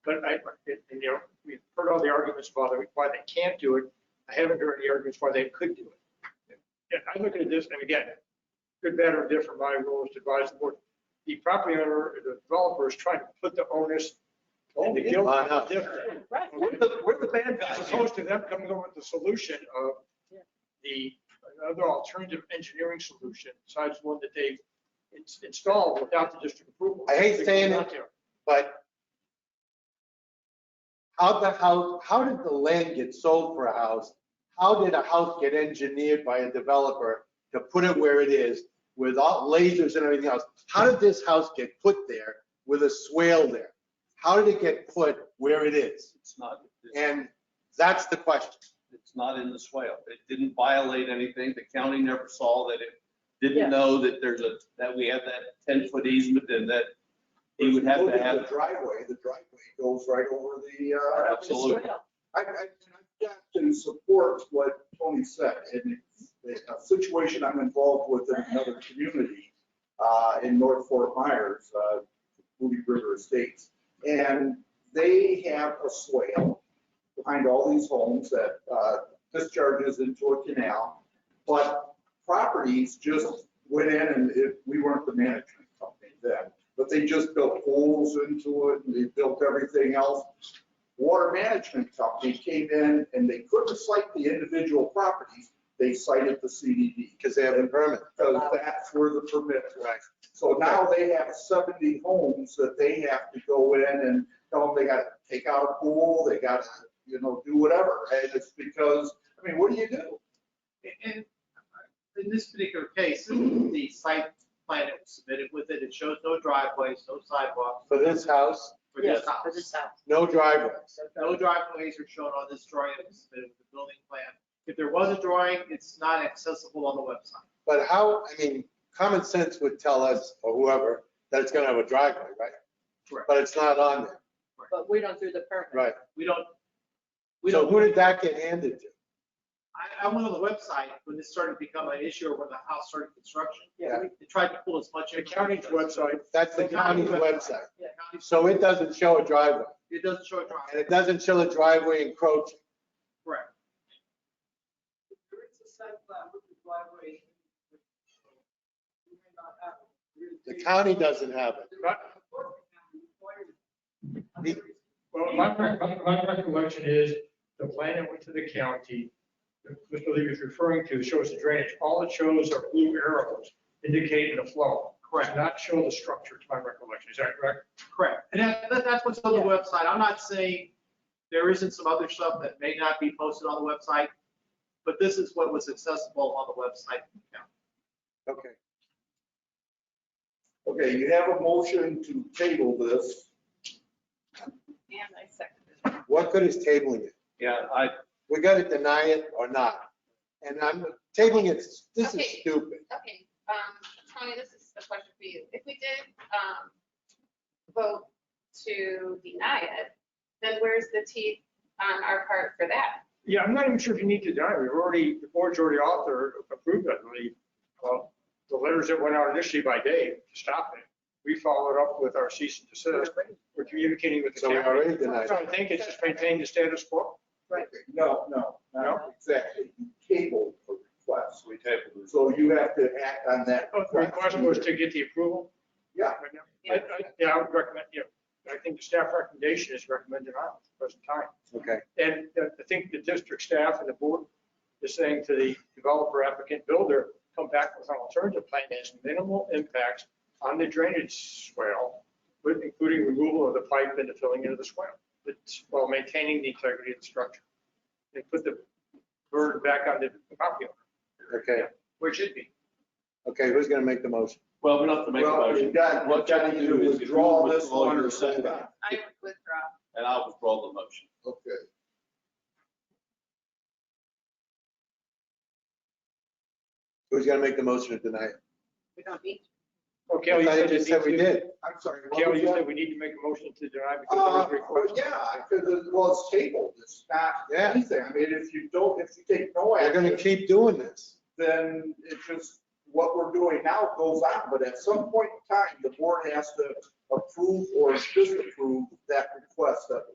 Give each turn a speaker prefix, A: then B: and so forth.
A: But I, and, and, you know, we've heard all the arguments why they, why they can't do it. I haven't heard any arguments why they could do it. And I look at this, and again, good, bad, or different, my role is to advise the board. The property owner, the developer is trying to put the onus and the guilt on the different.
B: Right.
C: We're the, we're the bad
A: As
C: guys.
A: opposed to them coming up with the solution of
B: Yeah.
A: the, another alternative engineering solution, besides one that they've ins- installed without the district approval.
D: I hate saying
A: Out there.
D: But how the house, how did the land get sold for a house? How did a house get engineered by a developer to put it where it is with all lasers and everything else? How did this house get put there with a swale there? How did it get put where it is?
C: It's not,
D: And that's the question.
C: it's not in the swale. It didn't violate anything. The county never saw that it,
B: Yeah.
C: didn't know that there's a, that we have that 10-foot easement and that he would have
E: Look
C: to
E: at The
C: have.
E: driveway, the driveway goes right over the, uh,
C: Absolutely.
E: I, I, and I have to support what Tony said, and it's a situation I'm involved with in another community, uh, in North Fort Myers, uh, Moody River Estates. And they have a swale behind all these homes that, uh, discharges into a canal. But properties just went in and it, we weren't the management company then, but they just built holes into it and they built everything else water management company came in and they couldn't cite the individual properties. They cited the CDD
D: Because they have a permit.
E: because that's where the permit was.
D: Right.
E: So now they have 70 homes that they have to go in and tell them they got to take out a pool, they got to, you know, do whatever. And it's because, I mean, what do you do?
F: And in this particular case, this is the site plan that was submitted with it, it shows no driveways, no sidewalks
D: For this house,
F: for
B: Yes,
F: this
B: for this
F: house.
B: house.
D: no driveway.
F: No driveways are shown on this drawing that was submitted with the building plan. If there was a drawing, it's not accessible on the website.
D: But how, I mean, common sense would tell us or whoever that it's going to have a driveway, right?
F: Correct.
D: But it's not on there,
B: But we don't do the permit.
D: right?
F: We don't, we
D: So
F: don't,
D: who did that get handed to?
F: I, I went on the website when this started to become an issue or when the house started construction.
D: Yeah.
F: They tried to pull as much.
A: The county's website
D: That's the county's website.
F: Yeah, county-
D: So it doesn't show a driveway,
F: It doesn't show a
D: and
F: driveway,
D: it doesn't show a driveway encroaching.
F: correct.
G: There is a site plan with the driveway. You may not have it. There is
D: The
G: a-
D: county doesn't have it.
G: There is a court requirement. And there is-
A: Well, my, my, my recollection is the plan that went to the county, that Mr. Levy is referring to, shows the drainage. All it shows are blue arrows indicating the flow. Correct. Not show the structure, to my recollection. Is that correct?
F: Correct. And that, that- that's what's on the
B: Yeah.
F: website. I'm not saying there isn't some other stuff that may not be posted on the website, but this is what was accessible on the website.
D: Okay.
E: Okay, you have a motion to table this.
B: And I second it.
D: What good is tabling it?
C: Yeah, I,
D: We gotta deny it or not. And I'm, tabling it, this is
H: Okay.
D: stupid.
H: Okay, um, Tony, this is a question for you. If we did, um, vote to deny it, then where's the teeth on our part for that?
A: Yeah, I'm not even sure if you need to deny. We've already, the board's already authored, approved, I believe, uh, the letters that went out initially by Dave to stop it. We followed up with our cease and desist. We're communicating with the
D: So we
A: county.
D: already denied
A: So I
D: it.
A: think it's just maintaining the status quo.
E: No, no, not exactly. Table a request.
C: we tabled this.
E: So you have to act on that.
A: The request was to get the approval.
E: Yeah,
A: right now. I, I, yeah, I would recommend, yeah, I think the staff recommendation is recommended on at the present time.
D: Okay.
A: And uh, I think the district staff and the board is saying to the developer applicant builder, come back with an alternative plan that has minimal impacts on the drainage swale, with- including removal of the pipe and the filling into the swale, but while maintaining the integrity of the structure. They put the burden back on the property owner,
D: Okay,
A: where it should be.
D: okay, who's gonna make the motion?
C: Well, we don't have to make a
E: Well,
C: motion.
E: you got,
C: What
E: you got
C: you
E: to
C: do is
E: withdraw this
C: withdraw
E: one
C: your
E: or send
C: second.
E: back.
H: I would withdraw.
C: And I'll withdraw the motion.
E: Okay.
D: Who's gonna make the motion to deny it?
H: We don't need.
A: Okay,
D: I
A: you
D: thought you
A: said
D: just said we did.
E: I'm sorry. what
A: Gail,
E: was
A: you
E: that?
A: said we need to make a motion to deny
E: Uh,
A: because
D: Oh,
A: there is request.
E: Yeah, because it was tabled, it's
D: Yeah.
E: not anything. I mean, if you don't, if you take no
D: We're gonna
E: action,
D: keep doing this.
E: then it's just, what we're doing now goes on, but at some point in time, the board has to approve or disapprove that request that